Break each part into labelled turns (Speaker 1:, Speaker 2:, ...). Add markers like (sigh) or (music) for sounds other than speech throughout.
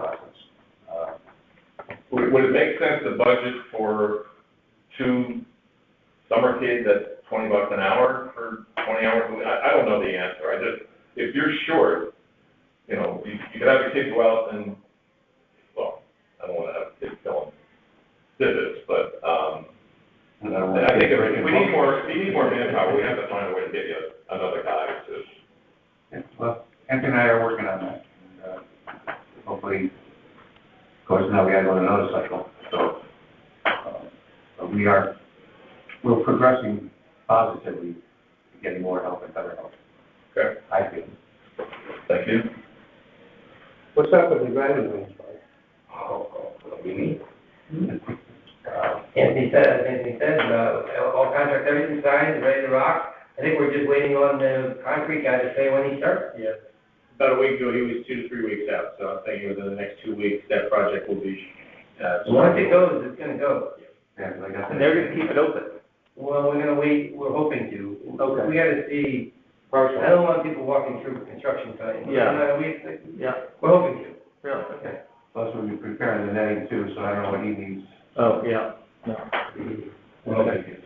Speaker 1: Uh, Would would it make sense to budget for two summer kids at twenty bucks an hour for twenty hours? a week? I, I don't know the answer, I just, if you're short, you know, you, you could have a kid go out and, well, I don't wanna have kids telling this, but, um,
Speaker 2: And I want
Speaker 1: I
Speaker 2: to
Speaker 1: think
Speaker 2: take a
Speaker 1: if
Speaker 2: break.
Speaker 1: we need more, we need more manpower, we have to find a way to get you another guy to,
Speaker 2: Yeah, Well, Anthony and I are working on that. and, uh, Hopefully, of course, now we gotta go to another cycle, so, uh, but we are, we're progressing positively, to getting more help and better help,
Speaker 1: okay,
Speaker 2: I feel.
Speaker 1: thank you.
Speaker 3: What's up with the driving range, Mike?
Speaker 4: Oh, what do you mean?
Speaker 1: Mm-hmm.
Speaker 4: Uh, Anthony said, as Anthony said, uh, all contracts, everything's signed, ready to rock. I think we're just waiting on the concrete guy to say when he starts.
Speaker 5: Yeah, about a week ago, he was two to three weeks out, so I'm thinking within the next two weeks, that project will be, uh.
Speaker 4: Once it goes, it's gonna go.
Speaker 2: Yeah, like I said.
Speaker 3: And they're gonna keep it open.
Speaker 4: Well, we're gonna wait, we're hoping to.
Speaker 3: Okay.
Speaker 4: We gotta see, I
Speaker 3: Partial.
Speaker 4: don't want people walking through construction site.
Speaker 3: Yeah.
Speaker 4: Uh, We,
Speaker 3: Yeah,
Speaker 4: we're hoping to.
Speaker 3: really?
Speaker 2: Plus, we'll be preparing the netting too, so I don't know what he needs.
Speaker 3: Oh, yeah, no.
Speaker 4: (coughs) I gotta keep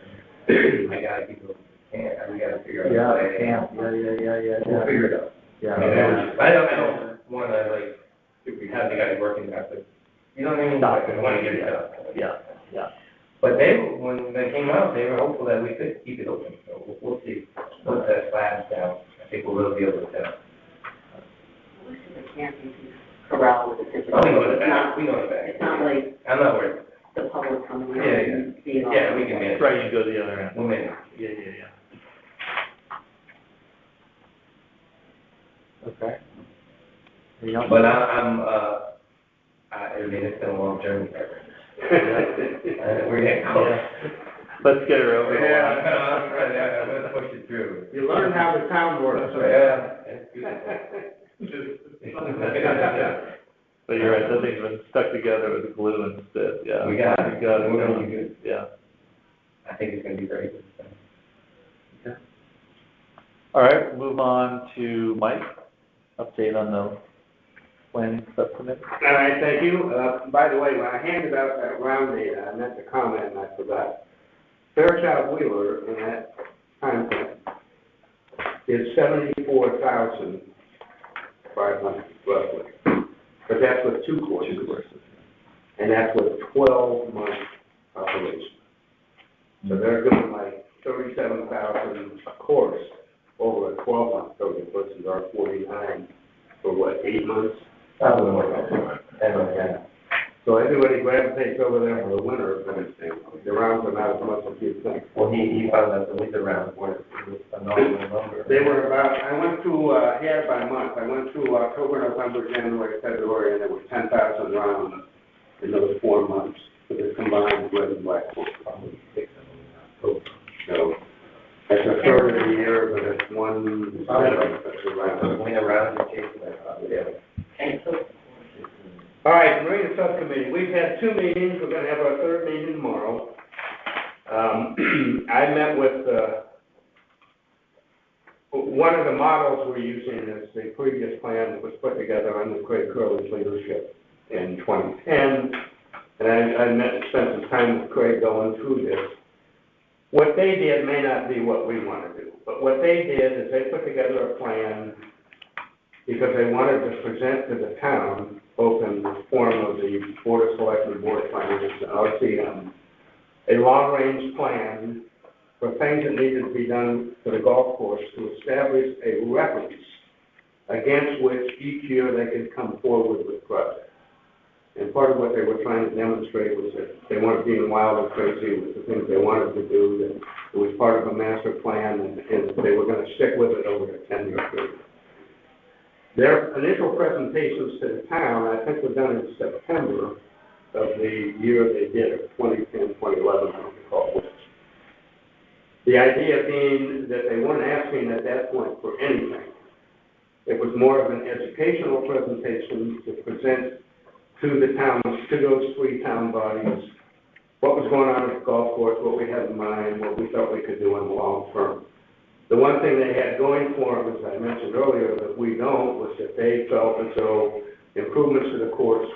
Speaker 4: it, yeah, we gotta figure out.
Speaker 3: Yeah,
Speaker 4: a
Speaker 3: they
Speaker 4: way.
Speaker 3: can, yeah, yeah, yeah, yeah,
Speaker 4: We'll
Speaker 3: yeah,
Speaker 4: figure it out.
Speaker 3: yeah.
Speaker 2: Yeah.
Speaker 4: I don't, I don't wanna like, if we have the guy working, that's like, you know what I mean?
Speaker 3: Stop it.
Speaker 4: I wanna get it done.
Speaker 3: Yeah, yeah.
Speaker 4: But they, when they came out, they were hopeful that we could keep it open, so we'll- we'll see. Once that slab's down, I think we'll really be able to tell.
Speaker 6: the camping corral with the different.
Speaker 4: Oh, we know the
Speaker 6: It's
Speaker 4: back,
Speaker 6: not-
Speaker 4: we know the back.
Speaker 6: It's not like
Speaker 4: I'm not worried,
Speaker 6: the public coming in
Speaker 4: Yeah, yeah.
Speaker 6: and being all.
Speaker 4: yeah, we can manage,
Speaker 3: Right, you go the other end.
Speaker 4: we'll manage.
Speaker 3: Yeah, yeah, yeah. Okay. Anything else?
Speaker 4: But I, I'm, uh, I, I mean, it's been a long journey, and we're getting close.
Speaker 3: Yeah. (laughs) Let's get her over the
Speaker 4: Yeah,
Speaker 3: line.
Speaker 4: I'm gonna, I'm gonna, I'm gonna push it through.
Speaker 5: You learn how the town works.
Speaker 4: Yeah, it's good.
Speaker 3: But you're right, that thing's been stuck together with glue and stuff, yeah.
Speaker 4: We got
Speaker 3: You
Speaker 4: it.
Speaker 3: got it,
Speaker 4: We're gonna be good.
Speaker 3: yeah.
Speaker 4: I think it's gonna be very good.
Speaker 3: All right, we'll move on to Mike, update on the planning subcommittee.
Speaker 5: All right, thank you. Uh, by the way, when I handed out that round data, I meant to comment and I forgot. Fairchild Wheeler in that time frame is seventy-four thousand five hundred roughly. But that's with two courses. And that's with twelve month operation. So they're doing like thirty-seven thousand a course over a twelve month program versus our forty-nine for what, eight months?
Speaker 4: That would work. That would, yeah.
Speaker 5: So everybody grab takes over there for the winter, but it's, the rounds are not as much as you think.
Speaker 4: Well, he, he found out the winter round was a normal number.
Speaker 5: They were about, I went through, uh, here by month, I went through October, November, January, February, and there were ten thousand rounds in those four months, for the combined red and black. So, that's a third of the year, but it's one, that's a round.
Speaker 4: Went around and chased my property.
Speaker 6: And so
Speaker 5: All right, Marina Subcommittee, we've had two meetings, we're gonna have our third meeting tomorrow. Um, I met with, uh, one of the models we're using is the previous plan that was put together under Craig Curley's leadership in twenty ten. And I, I met, spent some time with Craig going through this. What they did may not be what we wanna do, but what they did is they put together a plan because they wanted to present to the town, both in the form of the Board of Selectmen, Board of Finance, and RCM, a long-range plan for things that needed to be done for the golf course to establish a reference against which each year they could come forward with projects. And part of what they were trying to demonstrate was that they weren't being wild and crazy with the things they wanted to do, that it was part of a master plan, and, and they were gonna stick with it over a ten-year period. Their initial presentations to the town, I think were done in September of the year they did it, 2010, 2011, I don't recall which. The idea being that they weren't asking at that point for anything. It was more of an educational presentation to present to the towns, to those three town bodies, what was going on at the golf course, what we had in mind, what we thought we could do in the long term. The one thing they had going for them, as I mentioned earlier, that we don't, was that they felt as though improvements to the courts